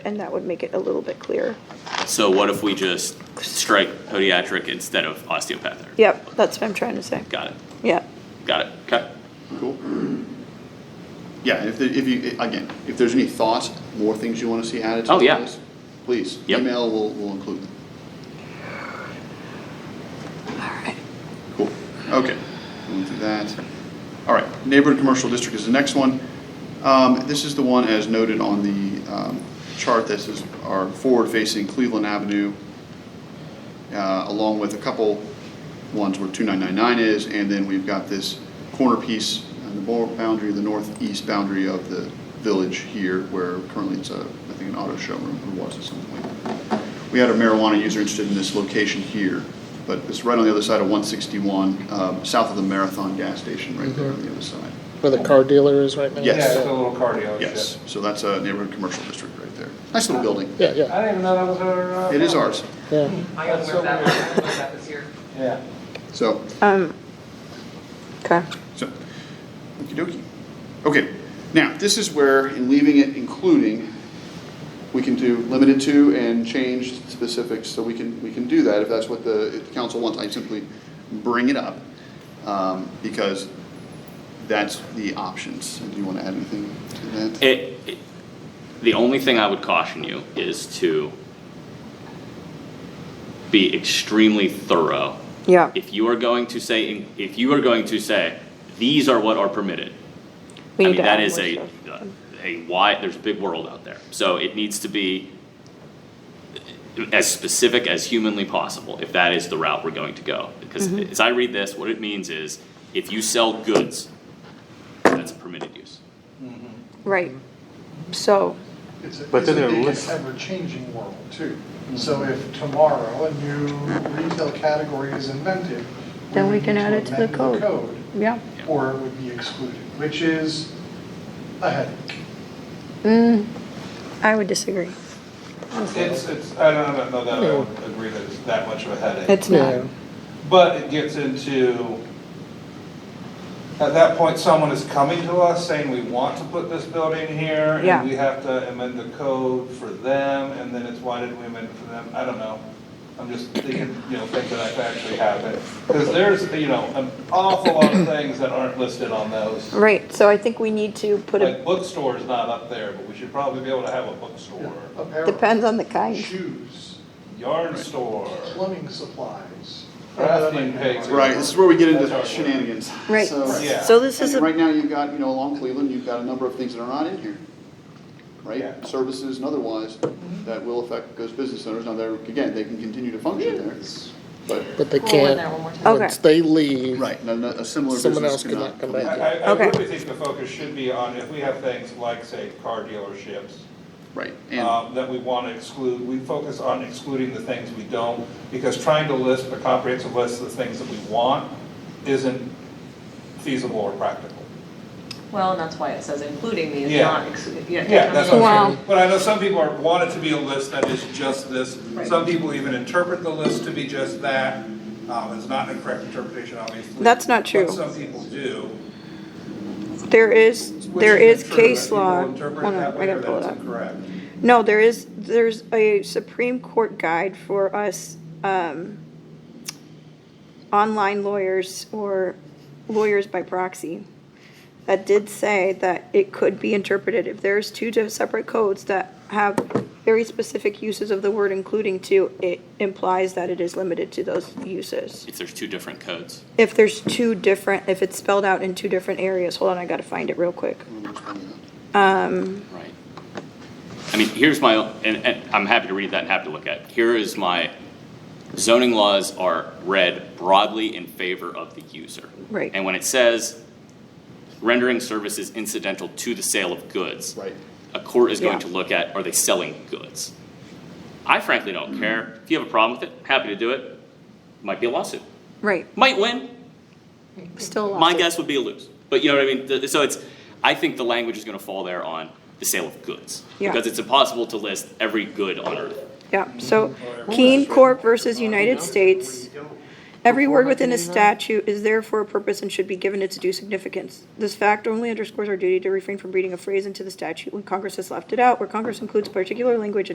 and that would make it a little bit clearer. So what if we just strike podiatric instead of osteopathic? Yep, that's what I'm trying to say. Got it, Yeah, got it, okay. Cool. Yeah, if, there- if you, again, if there's any thoughts, more things you wanna see added to Oh, yeah. this, please, Yep. email, we'll, we'll include them. all right. Cool, okay, going through that. All right, neighborhood commercial district is the next one. Um, this is the one as noted on the, um, chart, this is our forward-facing Cleveland Avenue, uh, along with a couple ones where 2999 is, and then we've got this corner piece on the bor- boundary, the northeast boundary of the village here, where currently it's a, I think, an auto showroom, or was at some point. We had a marijuana user interested in this location here, but it's right on the other side of 161, um, south of the Marathon gas station, right there on the other side. Where the car dealer is right now? Yes. Yeah, it's a little car dealership. Yes, so that's a neighborhood commercial district right there. Nice little building. Yeah, I yeah, didn't even know that was our. uh, It is ours. yeah. I got aware of that, I got aware of that this year. Yeah. So, Um, okay. So, okey dokey. Okay, now, this is where, in leaving it including, we can do limited to and change specifics, so we can, we can do that if that's what the, if the council wants. I simply bring it up, um, because that's the options. Do you want to add anything to that? It, it- the only thing I would caution you is to be extremely thorough. Yeah, If you are going to say, if you are going to say, these are what are permitted, we need I mean, to that add is a, more stuff. a wide, there's a big world out there. So it needs to be as specific as humanly possible, if that is the route we're going to go. Because Mm-hmm. as I read this, what it means is, if you sell goods, that's a permitted use. Right, so, It's a, But it's a then it big lists- and ever-changing world too. So if tomorrow a new retail category is invented. Then we would can need add it to the amend code. code, yeah. Or it would be excluded, which is a headache. Mm, I would disagree. It's, it's, I don't know that I would agree that it's that much of a headache. Hmm. It's not, But it gets into, at that point, someone is coming to us saying we want to put this building here. Yeah. And we have to amend the code for them, and then it's why did we amend it for them? I don't know. I'm just thinking, you know, things that could actually happen. Because there's, you know, an awful lot of things that aren't listed on those. right, so I think we need to put Like a, bookstore's not up there, but we should probably be able to have a bookstore, Apparel, depends on the kind. Shoes, yarn store. plumbing supplies. Crafting pigs. Right, this is where we get into That's our- shenanigans. Right, So- Yeah. so this is And a, Right now, you've got, you know, along Cleveland, you've got a number of things that are not in here, right? Yeah. Services and otherwise, that will affect those business owners. Now, they're, again, they can continue to function there, but. But they Roll in there can't, one more time. Okay. once they leave. Right, no- no, a similar Someone business else could cannot not come back in. in. I, I Okay. really think the focus should be on if we have things like, say, car dealerships, Right, and, um, that we want to exclude, we focus on excluding the things we don't, because trying to list a comprehensive list of the things that we want isn't feasible or practical. Well, and that's why it says including these, Yeah. not excluding. Yeah, that's what Wow. I'm saying. But I know some people are, want it to be a list that is just this. Some people even interpret the list to be just that. Um, it's not a correct interpretation, obviously. That's not true. But some people do. there is, which there is isn't true, that case people law. interpret it Hold that on, I way or gotta pull it that's up. incorrect. No, there is, there's a Supreme Court guide for us, um, online lawyers or lawyers by proxy that did say that it could be interpreted if there's two di- separate codes that have very specific uses of the word including to, it implies that it is limited to those uses. If there's two different codes. If there's two different, if it's spelled out in two different areas, hold on, I gotta find it real quick. Right. I mean, here's my, and, and I'm happy to read that and happy to look at. it. Here is my, zoning laws are read broadly in favor of the user. Right. And when it says rendering services incidental to the sale of goods. right, A court is going Yeah. to look at, are they selling goods? I frankly don't care. If you have a problem with it, happy to do it. Might be a lawsuit. Right, Might win, still a lot. my guess would be a lose. But you know what I mean? The- So it's, I think the language is gonna fall there on the sale of goods. Yeah. Because it's impossible to list every good on earth. Yeah, so Keene Corp versus United States Every word within a statute is there for a purpose and should be given its due significance. This fact only underscores our duty to refrain from reading a phrase into the statute when Congress has left it out, where Congress includes particular language